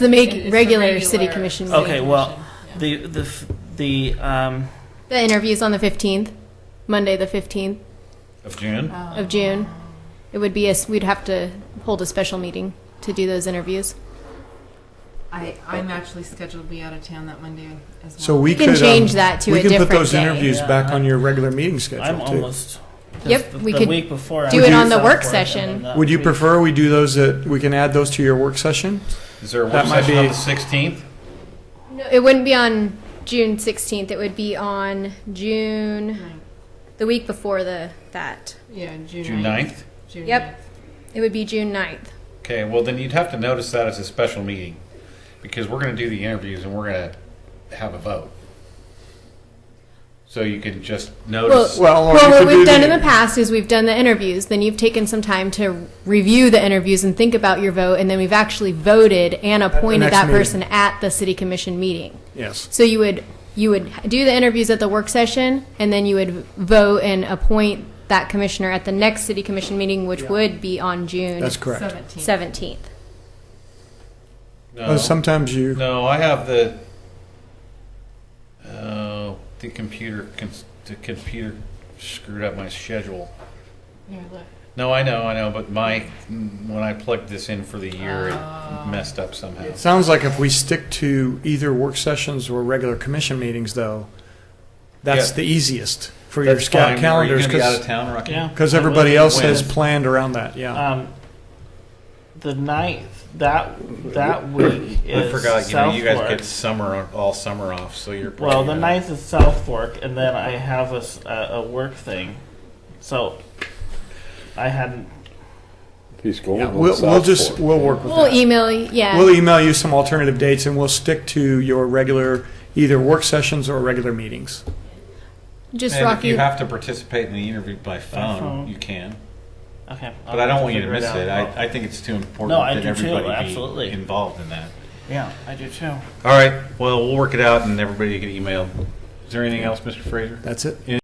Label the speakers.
Speaker 1: The
Speaker 2: It is
Speaker 1: make,
Speaker 2: the
Speaker 1: regular city
Speaker 2: regular
Speaker 1: commission
Speaker 2: city
Speaker 1: meeting.
Speaker 3: Okay, well,
Speaker 2: commission,
Speaker 3: the, the, f- the, um,
Speaker 1: The interview's on the 15th, Monday, the 15th
Speaker 4: Of June?
Speaker 2: yeah.
Speaker 1: of June. It would be, a s- we'd have to hold a special meeting to do those interviews.
Speaker 2: I, I'm actually scheduled to be out of town that Monday as well.
Speaker 5: So we
Speaker 1: You can
Speaker 5: could. um,
Speaker 1: change that to a
Speaker 5: We can
Speaker 1: different
Speaker 5: put those
Speaker 1: day.
Speaker 5: interviews
Speaker 3: Yeah,
Speaker 5: back on
Speaker 3: I-
Speaker 5: your regular meeting schedule, too.
Speaker 3: I'm almost. 'cause
Speaker 1: Yep,
Speaker 3: the-
Speaker 1: we
Speaker 3: the
Speaker 1: could
Speaker 3: week before I
Speaker 1: do
Speaker 3: was
Speaker 5: it
Speaker 3: in
Speaker 5: on
Speaker 1: the
Speaker 3: South
Speaker 1: work
Speaker 3: Florida,
Speaker 1: session.
Speaker 3: and uh, that
Speaker 5: Would you
Speaker 3: week-
Speaker 5: prefer we do those at, we can add those to your work session?
Speaker 4: Is there a
Speaker 5: That
Speaker 4: work
Speaker 5: might
Speaker 4: session on
Speaker 5: be-
Speaker 4: the 16th?
Speaker 1: No, it wouldn't be on June 16th. It would be on June,
Speaker 2: Right.
Speaker 1: the week before the, that.
Speaker 2: Yeah, June.
Speaker 4: June 9th?
Speaker 2: June
Speaker 1: Yep.
Speaker 2: 9th.
Speaker 1: It would be June 9th.
Speaker 4: Okay, well, then you'd have to notice that as a special meeting, because we're going to do the interviews and we're going to have a vote. So you can just notice,
Speaker 5: Well, or
Speaker 1: well,
Speaker 5: you
Speaker 1: what
Speaker 5: could do
Speaker 1: we've done
Speaker 5: the-
Speaker 1: in the past is we've done the interviews. Then you've taken some time to review the interviews and think about your vote, and then we've actually voted and
Speaker 5: the
Speaker 1: appointed
Speaker 5: next
Speaker 1: that
Speaker 5: meeting.
Speaker 1: person at the city commission meeting.
Speaker 5: Yes.
Speaker 1: So you would you would do the interviews at the work session, and then you would vote and appoint that commissioner at the next city commission meeting, which would be on June
Speaker 5: That's correct.
Speaker 2: 17th.
Speaker 1: seventeenth.
Speaker 5: Uh,
Speaker 4: no,
Speaker 5: Sometimes you,
Speaker 4: no, I have the, oh, the computer, cons- the computer screwed up my schedule.
Speaker 2: Here, look.
Speaker 4: No, I know, I know, but my, when I plugged this in for the year,
Speaker 2: Uh,
Speaker 5: Oh.
Speaker 4: it messed up somehow.
Speaker 5: it sounds like if we stick to either work sessions or regular commission meetings, though, that's
Speaker 4: Yeah.
Speaker 5: the easiest for your
Speaker 4: That's fine.
Speaker 5: scout
Speaker 4: Are you
Speaker 5: calendars,
Speaker 4: going to be out of
Speaker 5: because,
Speaker 4: town, Rocky?
Speaker 3: Yeah. I will.
Speaker 5: everybody else has
Speaker 4: When?
Speaker 5: planned around that, yeah.
Speaker 3: Um, the ninth, that, that week
Speaker 4: I
Speaker 3: is
Speaker 4: forgot, you know,
Speaker 3: South
Speaker 4: you guys
Speaker 3: Fork.
Speaker 4: get summer, all summer off, so you're.
Speaker 3: Well,
Speaker 4: probably
Speaker 3: the
Speaker 4: not-
Speaker 3: ninth is South Fork, and then I have a, s- a- a work thing. So I hadn't.
Speaker 6: He's going
Speaker 5: Yeah,
Speaker 6: on
Speaker 5: We'll, we'll
Speaker 6: South
Speaker 5: just,
Speaker 6: Fork.
Speaker 5: we'll work with
Speaker 1: We'll
Speaker 5: that.
Speaker 1: email you. Yeah.
Speaker 5: We'll e- email you some alternative dates, and we'll stick to your regular, either work sessions or regular meetings.
Speaker 1: just
Speaker 4: And if
Speaker 1: Rocky.
Speaker 4: you have to participate in the interview by phone,
Speaker 3: phone.
Speaker 4: you can,
Speaker 3: Okay.
Speaker 4: but I don't want you to
Speaker 3: Figure
Speaker 4: miss it.
Speaker 3: out.
Speaker 4: I, I think it's too important
Speaker 3: No, I
Speaker 4: that
Speaker 3: do too,
Speaker 4: everybody
Speaker 3: absolutely.
Speaker 4: be involved in that.
Speaker 3: yeah, I do too.
Speaker 4: All right, well, we'll work it out and everybody get emailed. Is there anything else, Mr. Fraser?
Speaker 5: That's it.